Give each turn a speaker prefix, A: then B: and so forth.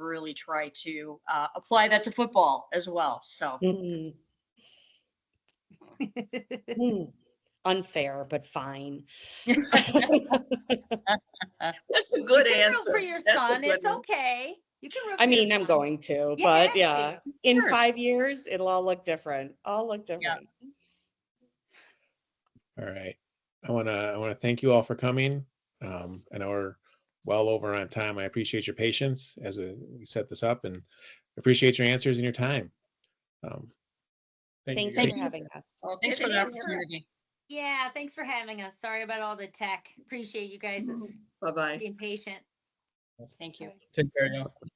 A: really try to uh, apply that to football as well. So
B: Mm. Mm. Unfair, but fine.
C: That's a good
D: you can root
C: answer.
D: For your
C: That's a
D: son,
C: good
D: it's
C: one.
D: okay. You can root.
B: I
D: for your
B: mean, I'm
D: son.
B: going to,
D: You have
B: but
D: to,
B: yeah, in
A: course.
B: five years, it'll all look different. All look different.
E: All right. I want to I want to thank you all for coming. Um, I know we're well over on time. I appreciate your patience as we, we set this up and appreciate your answers and your time. Um,
B: Thank
E: guys.
B: you
A: Thank
B: for
A: you.
B: having us.
C: I'll
A: thanks
C: take
A: for
C: it
A: the
C: as a-
A: opportunity.
D: Yeah, thanks for having us. Sorry about all the tech. Appreciate you guys
C: Mm-hmm. Bye-bye.
D: being patient.
A: Thank you.
E: Take care. y'all.